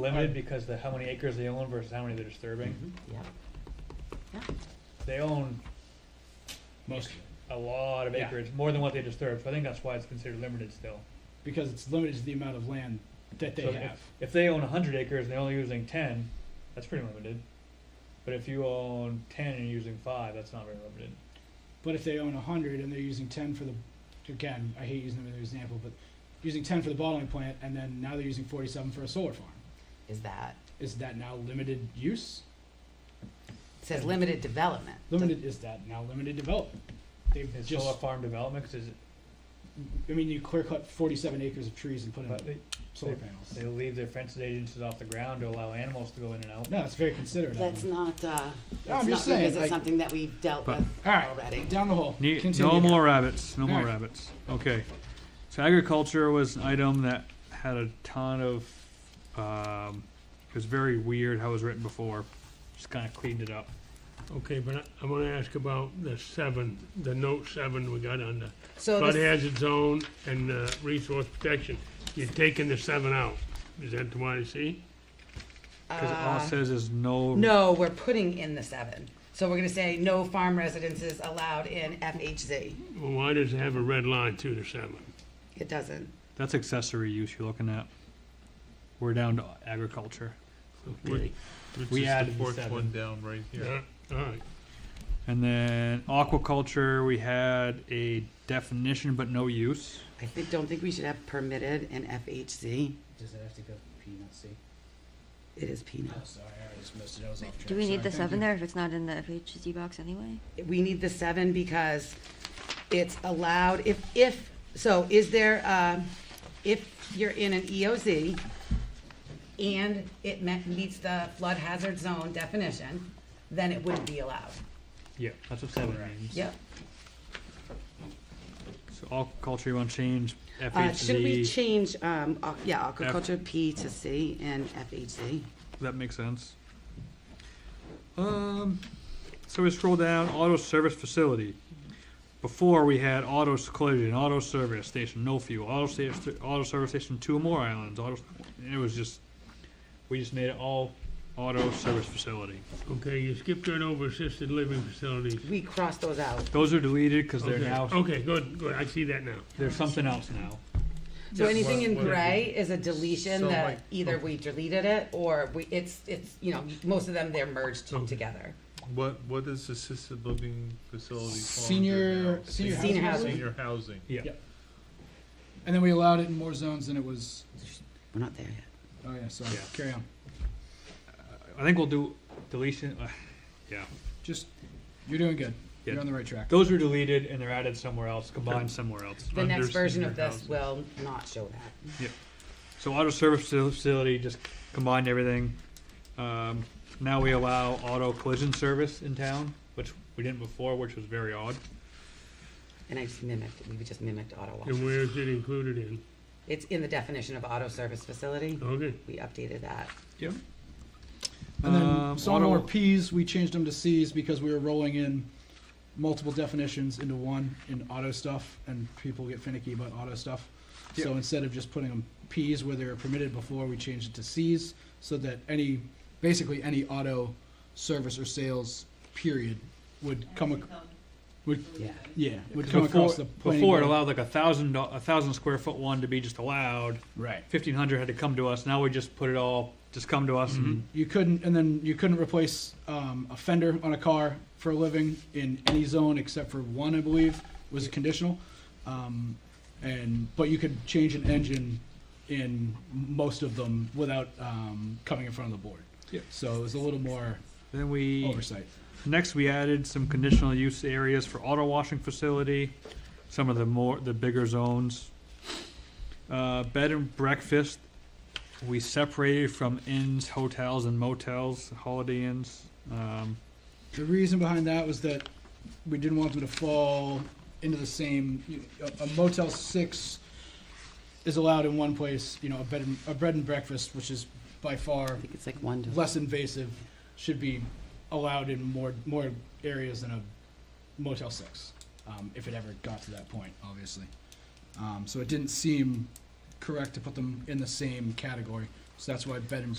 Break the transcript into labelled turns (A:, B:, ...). A: limited because the, how many acres they own versus how many they're
B: Mm-hmm.
C: Mm-hmm.
A: disturbing.
D: Yeah. Yeah.
A: They own
C: Most of it,
A: a lot of
C: Yeah.
A: acreage, more than what they disturb, so I think that's why it's considered limited still.
C: because it's limited to the amount of land that they
A: So if-
C: have.
A: If they own hundred acres and they're only using ten, that's pretty limited. But if you own ten and you're using five, that's not very limited.
C: But if they own a hundred and they're using ten for the, again, I hate using them as an example, but using ten for the bottling plant and then now they're using forty-seven for a solar farm.
D: Is that,
C: Is that now limited use?
D: it says limited development.
C: Limited, is that now limited development? They've
A: Is solar
C: just,
A: farm development, 'cause is,
C: I mean, you clear cut forty-seven acres of trees and put
A: but
C: in
A: they,
C: solar
A: they-
C: panels.
A: they leave their fences eight inches off the ground to allow animals to go in and out.
C: No, it's very considerate. of
D: That's
C: them.
D: not, uh,
C: I'm
D: that's not,
C: just saying,
D: because
C: like-
D: it's something that we've dealt
B: But-
D: with
C: All
D: already.
C: right, down the hole.
B: Ne-
C: Continue.
B: No more rabbits, no more
C: Alright.
B: rabbits. Okay. So agriculture was an item that had a ton of, um, it was very weird how it was written before. Just kind of cleaned it up.
E: Okay, but I, I wanna ask about the seven, the note seven we got on the
D: So
E: flood
D: this,
E: hazard zone and, uh, resource protection. You're taking the seven out. Is that the one I see?
B: Because all it says is Uh. no.
D: uh, no, we're putting in the seven. So we're gonna say no farm residences allowed in FHZ.
E: Well, why does it have a red line through the seven?
D: It doesn't.
B: That's accessory use you're looking at. We're down to agriculture.
E: Okay,
B: We added the
F: Fourth
B: seven.
F: one down right here.
E: yeah, all right.
B: And then aquaculture, we had a definition but no use.
D: I think, don't think we should have permitted in FHZ.
C: Does it have to go peanutsy?
D: It is peanut.
C: Oh, sorry, I already missed it, I was off track.
G: Do we need
C: Sorry,
G: the
C: thank
G: seven
C: you.
G: there if it's not in the FHD box anyway?
D: We need the seven because it's allowed, if, if, so is there, um, if you're in an EOZ and it me- meets the flood hazard zone definition, then it wouldn't be allowed.
B: Yeah, that's what seven means.
D: Yep.
B: So aquaculture, you want to change
D: Uh, should we
B: FHZ,
D: change, um, aqu- yeah, aquaculture P to C and FHZ?
B: that makes sense. Um, so we scroll down, auto service facility. Before we had auto s- collision, auto service station, no fuel, auto sta- st- auto service station, two or more islands, auto, s- and it was just, we just made it all auto service facility.
E: Okay, you skipped right over assisted living facilities.
D: We cross those out.
B: Those are deleted because they're
E: Okay,
B: now,
E: Okay, good, good. I see that now.
B: they're something else now.
D: So anything in
E: Well, whatever.
D: gray is a deletion
F: So
D: that
F: like-
D: either we deleted it or we, it's, it's, you know, most of them, they're merged
E: Okay.
D: together.
F: What, what is assisted living facility fall
C: Senior-
F: under now?
C: senior
D: Senior housing.
F: Senior housing.
B: Yeah.
C: And then we allowed it in more zones than it was,
D: We're not there yet.
C: oh yeah, sorry,
B: Yeah.
C: carry on.
B: I think we'll do deletion, uh, yeah.
C: Just, you're doing good. You're
B: Yeah.
C: on the right track.
B: Those are deleted and they're added somewhere else, combined somewhere else.
D: The next
E: Under
D: version
E: senior
D: of this
E: housing.
D: will not show that.
B: So auto service facil- facility, just combined everything. Um, now we allow auto collision service in town, which we didn't before, which was very odd.
D: And I just mimicked, we just mimicked auto wash.
E: And where is it included in?
D: It's in the definition of auto service facility.
E: Okay,
D: We updated that.
B: Yep.
C: And then
B: Um,
C: some
B: auto-
C: more Ps, we changed them to Cs because we were rolling in multiple definitions into one in auto stuff, and people get finicky about auto stuff. So instead of just putting them Ps where they were permitted before, we changed it to Cs, so that any, basically any auto service or sales period would come, ac- would,
D: Yeah.
C: yeah, would come
B: Before,
C: across the planning
B: before it
C: board.
B: allowed like a thousand, do- a thousand square foot one to be just allowed.
C: Right.
B: Fifteen hundred had to come to us. Now we just put it all, just come to us and
C: You couldn't, and then you couldn't replace um, a fender on a car for a living in any zone except for one, I believe, was conditional. Um, and but you could change an engine in most of them without um, coming in front of the board.
B: Yep.
C: So it was a little more
B: then we.
C: oversight.
B: Next, we added some conditional use areas for auto washing facility, some of the more, the bigger zones. Uh, bed and breakfast, we separated from inns, hotels, and motels, holiday inns. Um,
C: The reason behind that was that we didn't want them to fall into the same. You, a- a Motel Six is allowed in one place. You know, a bed and, a bed and breakfast, which is by far
D: I think it's like one to.
C: less invasive should be allowed in more more areas than a Motel Six, um, if it ever got to that point, obviously. Um, so it didn't seem correct to put them in the same category. So that's why bed and